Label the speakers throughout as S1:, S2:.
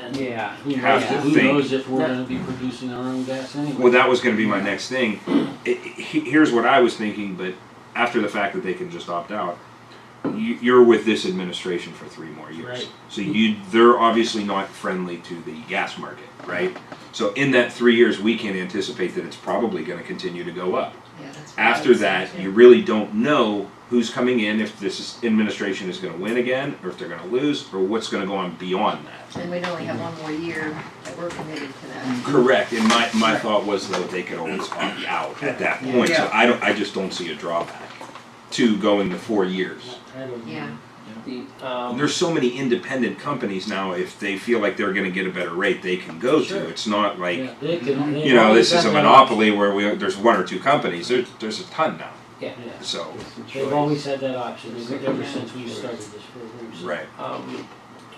S1: and
S2: Yeah, who
S3: Have
S2: knows,
S3: to
S2: who
S3: think.
S2: knows if we're gonna be producing our own gas anyway?
S3: Well, that was going to be my next thing. It, it- he- here's what I was thinking, but after the fact that they can just opt out, you, you're with this administration for three more years.
S2: Right.
S3: So you, they're obviously not friendly to the gas market, right? So in that three years, we can anticipate that it's probably going to continue to go up.
S1: yeah, that's what I
S3: After
S1: would say,
S3: that,
S1: too.
S3: you really don't know who's coming in, if this is- administration is going to win again, or if they're going to lose, or what's going to go on beyond that.
S1: And we'd only have one more year that we're committed to that.
S3: Correct, and my, my thought was though, they could always opt out at that point, so
S4: Yeah.
S3: I don't, I just don't see a drawback to going to four years.
S2: I don't know.
S1: Yeah.
S5: The,
S3: And
S5: um,
S3: There's so many independent companies now, if they feel like they're gonna get a better rate, they can go
S2: Sure.
S3: to, it's not
S2: Yeah,
S3: like,
S2: they can- they
S3: you know,
S2: always
S3: this is a
S2: have that
S3: monopoly where we, there's one or two companies, there's, there's a ton now,
S5: yeah,
S2: option. Yeah.
S3: so,
S2: They've always had that option, ever ever since we started this program. so-
S3: right.
S5: um,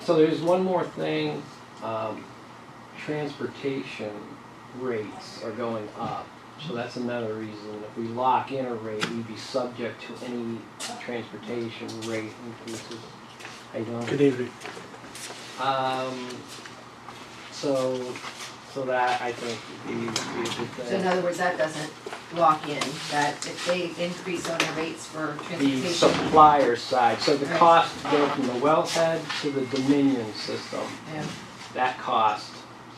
S5: so there's one more thing, um, transportation rates are going up. So that's another reason, if we lock in a rate, we'd be subject to any transportation rate increases. I don't.
S6: Good evening.
S5: Um, so, so that I think would be, be a good thing.
S1: So in other words, that doesn't lock in, that if they increase on the rates for
S5: the
S1: transportation,
S5: supplier side, so the
S1: Right.
S5: cost to go from the wellhead to the Dominion system,
S1: yeah,
S5: that cost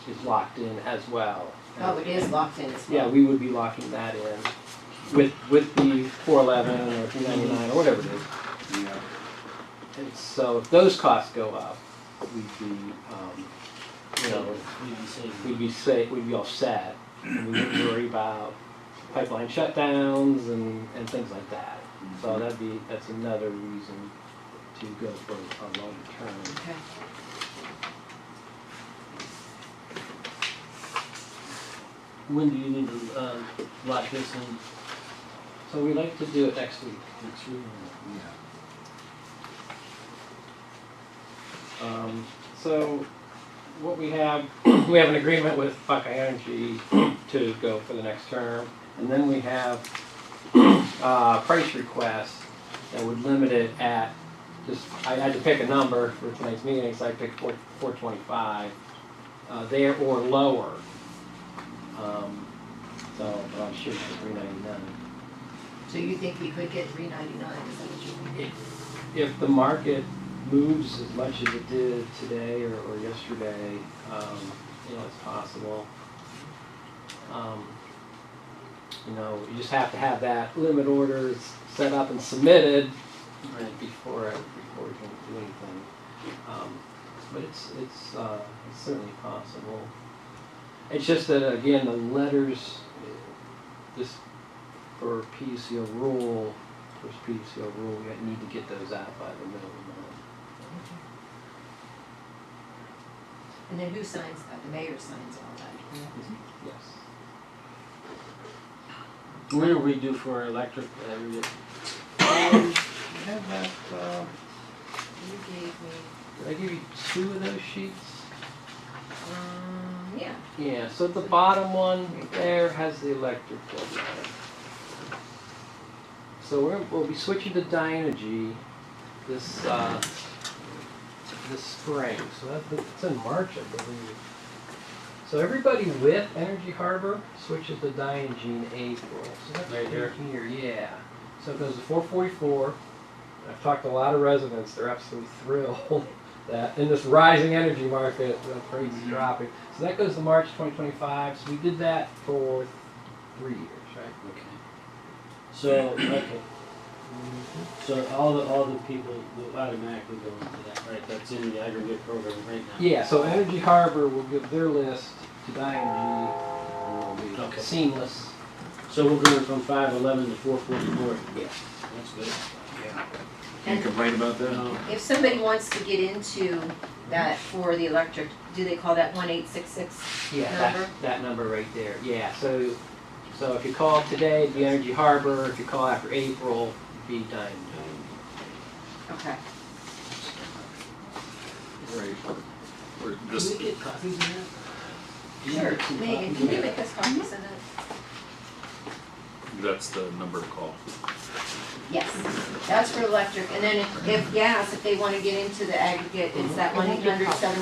S5: is locked in as well.
S1: oh, it is locked in as
S5: Yeah,
S1: well.
S5: we would be locking that in with, with the four eleven or two ninety-nine or whatever it is. And so if those costs go up, we'd be, um, you know,
S2: You can say-
S5: we'd be safe, we'd be offset. and We wouldn't worry about pipeline shutdowns and, and things like that. So that'd be, that's another reason to go for a longer term.
S1: Okay.
S2: When do you need to, uh, lock this in
S5: So we like to do it next week.
S2: next week?
S5: Um, so what we have, we have an agreement with Buckeye Energy to go for the next term. And then we have, uh, price requests that would limit it at, just, I had to pick a number for tonight's meeting, so I picked four, four twenty-five, uh, there or lower. Um, so, but I'm shooting for three ninety-nine.
S1: So you think we could get three ninety-nine, is that what you mean?
S5: if the market moves as much as it did today or, or yesterday, um, you know, it's possible. Um, you know, you just have to have that limit orders set up and submitted right, before, before we can do anything. Um, but it's, it's, uh, it's certainly possible. It's just that, again, the letters, eh, this, for PUCO rule, first PCO rule, we need to get those out by the middle of the month.
S1: And then who signs that, the mayor signs all that, yeah.
S5: Yes.
S2: When are we due for our electric, uh, we-
S5: Um,
S1: You gave me,
S5: uh, Did I give you two of those sheets?
S1: um, yeah,
S5: Yeah, so the bottom one there has the electrical line. So we're, we'll be switching to Dynegy this, uh, this spring, so that, that's in March, I believe. So everybody with Energy Harbor switches to Dynegy in April, so that's
S2: Right
S5: right
S2: here.
S5: here, yeah. So it goes to four forty-four, I've talked to a lot of residents, they're absolutely thrilled that in this rising energy market, the price
S1: Mm-hmm.
S5: is dropping. So that goes to March 2025. So we did that for three years, right?
S2: Okay. So, okay.
S1: Mm-hmm.
S2: So all the, all the people will automatically go into that, right? That's in the aggregate program right now?
S5: Yeah. So Energy Harbor will give their list to Dynegy, and it'll be
S2: Okay.
S5: seamless.
S2: So we're going from five eleven to four forty-four?
S5: Yes.
S2: That's good.
S3: Can you complain about that?
S2: Um,
S1: if somebody wants to get into that for the electric, do they call that one eight six six
S5: Yeah.
S1: number?
S2: Uh-huh.
S5: That, that number right there. Yeah. So so if you call today, it'd be Energy Harbor. If you call after April, it'd be Dynegy.
S1: Okay,
S3: Right. Or
S2: Can
S3: this-
S2: we get copies of that? Do you
S1: sure,
S2: have some
S1: Megan,
S2: copies?
S1: can you make us copies of that?
S7: That's the number to call.
S1: Yes, that's for electric, and then if, if gas, if they wanna get into the aggregate, it's that one eight hundred seven